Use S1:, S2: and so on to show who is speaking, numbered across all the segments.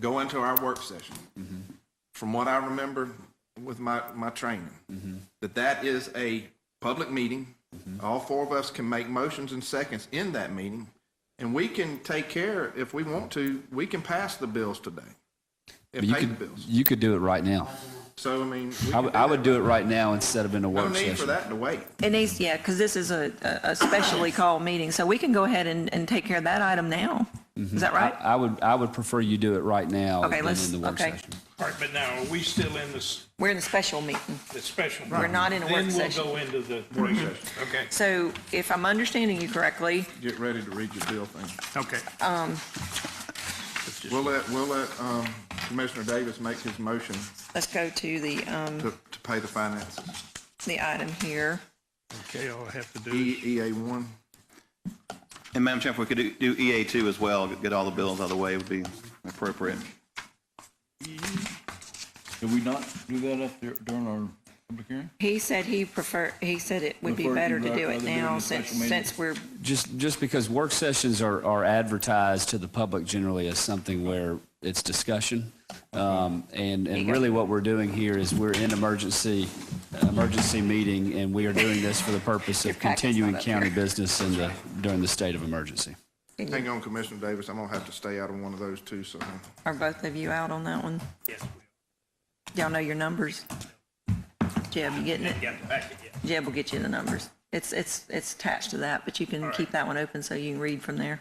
S1: go into our work session. Mm-hmm. From what I remember with my, my training, that that is a public meeting. All four of us can make motions and seconds in that meeting. And we can take care, if we want to, we can pass the bills today. And
S2: You
S1: pay the
S2: could,
S1: bills.
S2: you could do it right now.
S1: So, I mean. we
S2: I
S1: can
S2: would- I would
S1: that.
S2: do it right now instead of in
S1: No
S2: a work
S1: need for
S2: session.
S1: that to wait.
S3: It needs, yeah, because this is a, a a specially called meeting, so we can go ahead and, and take care of that item now. Is that
S2: I,
S3: right?
S2: I would, I would prefer you do it right now
S3: Okay,
S2: than
S3: let's-
S2: in the work
S3: okay.
S2: session.
S4: All right, but now, are we still in this,
S3: We're in the special meeting.
S4: the special?
S3: We're not in a work session.
S4: Then we'll go into the work session. Okay,
S3: So if I'm understanding you correctly,
S1: Get ready to read your bill thing.
S4: okay.
S3: Um,
S1: We'll let, we'll let um, Commissioner Davis make his motion
S3: let's go to the, um,
S1: to, to pay the finances.
S3: the item here.
S4: Okay, all I have to do is,
S1: EA E, one,
S5: And Madam Chair, if we could do do EA2 as well, get all the bills out of the way would be appropriate.
S6: Did we not do that up there during our public hearing?
S3: He said he prefer, he said it would be
S6: Prefer
S3: better to
S6: you'd
S3: do
S6: rather
S3: it
S6: do it in
S3: now
S6: a
S3: since,
S6: special meeting.
S3: since we're,
S2: Just, just because work sessions are, are advertised to the public generally as something where it's discussion. Um, and, and really what we're doing here is we're in emergency, emergency meeting, and we are doing this for the purpose
S3: Your
S2: of
S3: packet's
S2: continuing
S3: not up here.
S2: county business in the, during the state of emergency.
S1: hang on Commissioner Davis, I'm gonna have to stay out of one of those too, so.
S3: are both of you out on that one?
S4: yes,
S3: Y'all know your numbers? Jeb, you getting it?
S4: yeah, the packet, yeah.
S3: Jeb will get you the numbers. It's, it's, it's attached to that, but you can keep that one open so you can read from there.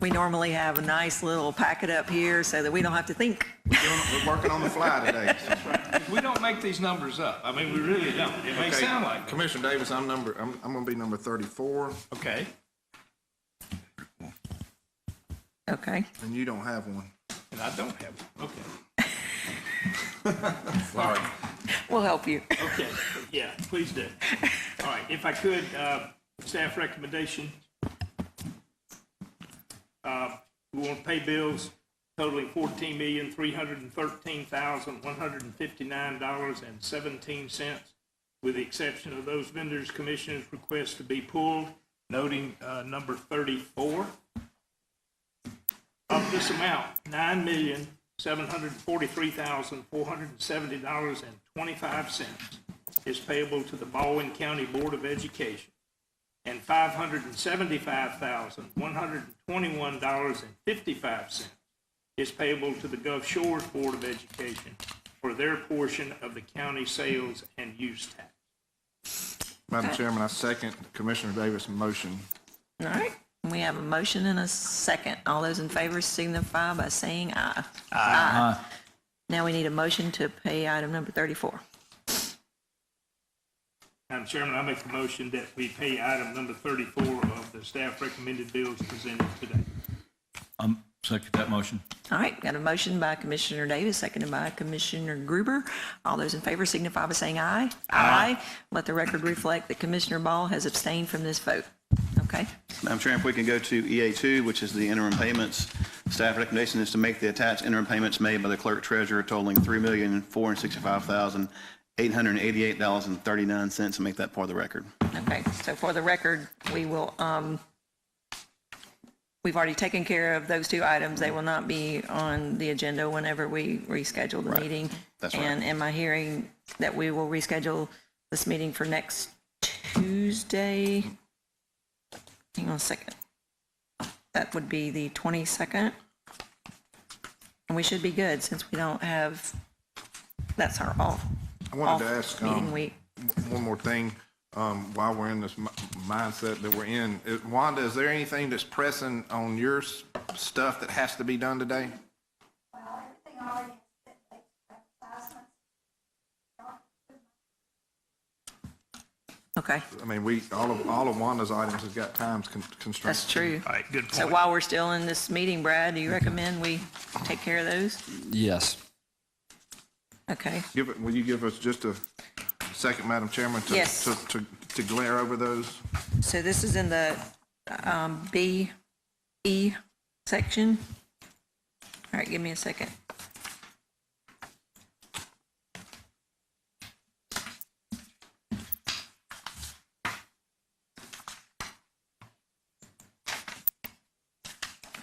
S3: We normally have a nice little packet up here so that we don't have to think.
S1: We're working on the fly today.
S4: We don't make these numbers up. I mean, we really don't. It may
S1: Okay,
S4: sound like, it.
S1: Commissioner Davis, I'm number, I'm, I'm gonna be number thirty-four,
S4: okay,
S3: Okay.
S1: and you don't have one.
S4: and I don't have, it. okay,
S1: Sorry.
S3: We'll help you.
S4: okay, yeah, please do. All right, if I could, uh, staff recommendation. Uh, We want to pay bills totaling fourteen million, three hundred and thirteen thousand, one hundred and fifty-nine dollars and seventeen cents, with the exception of those vendors' commissioners' requests to be pulled, noting uh, number thirty-four. Of this amount, nine million, seven hundred and forty-three thousand, four hundred and seventy dollars and twenty-five cents is payable to the Baldwin County Board of Education and five hundred and seventy-five thousand, one hundred and twenty-one dollars and fifty-five cents is payable to the Gulf Shores Board of Education for their portion of the county sales and use tax.
S1: Madam Chairman, I second Commissioner Davis' motion.
S3: All right. We have a motion and a second. All those in favor signify by saying aye. Aye. Now we need a motion to pay item number 34.
S4: Madam Chairman, I make the motion that we pay item number thirty-four of the staff recommended bills presented today.
S6: Um, second that motion.
S3: All right, got a motion by Commissioner Davis, seconded by Commissioner Gruber. All those in favor signify by saying aye. Aye. Let the record reflect that Commissioner Ball has abstained from this vote. Okay,
S5: Madam Chair, if we can go to EA2, which is the interim payments. Staff recommendation is to make the attached interim payments made by the clerk treasurer totaling $3,465,888.39 and make that part of the record.
S3: okay. So for the record, we will, um, we've already taken care of those two items. They will not be on the agenda whenever we reschedule the meeting.
S5: That's right.
S3: And am I hearing that we will reschedule this meeting for next Tuesday? Hang on a second. That would be the 22nd. And we should be good since we don't have, that's our off.
S1: I wanted to
S3: off
S1: ask,
S3: Meeting
S1: um,
S3: week.
S1: one more thing, um, while we're in this mi- mindset that we're in. Is- Wanda, is there anything that's pressing on your s- stuff that has to be done today?
S7: Well, everything already has been like advertisements.
S3: Okay,
S1: I mean, we, all of, all of Wanda's items has got times con- constraints.
S3: that's true.
S4: All right, good point.
S3: So while we're still in this meeting, Brad, do you recommend we take care of those?
S2: Yes.
S3: Okay.
S1: Give, it- will you give us just a second, Madam Chairman? to-
S3: Yes.
S1: To, to, to glare over those?
S3: So this is in the um, B, E section. All right, give me a second.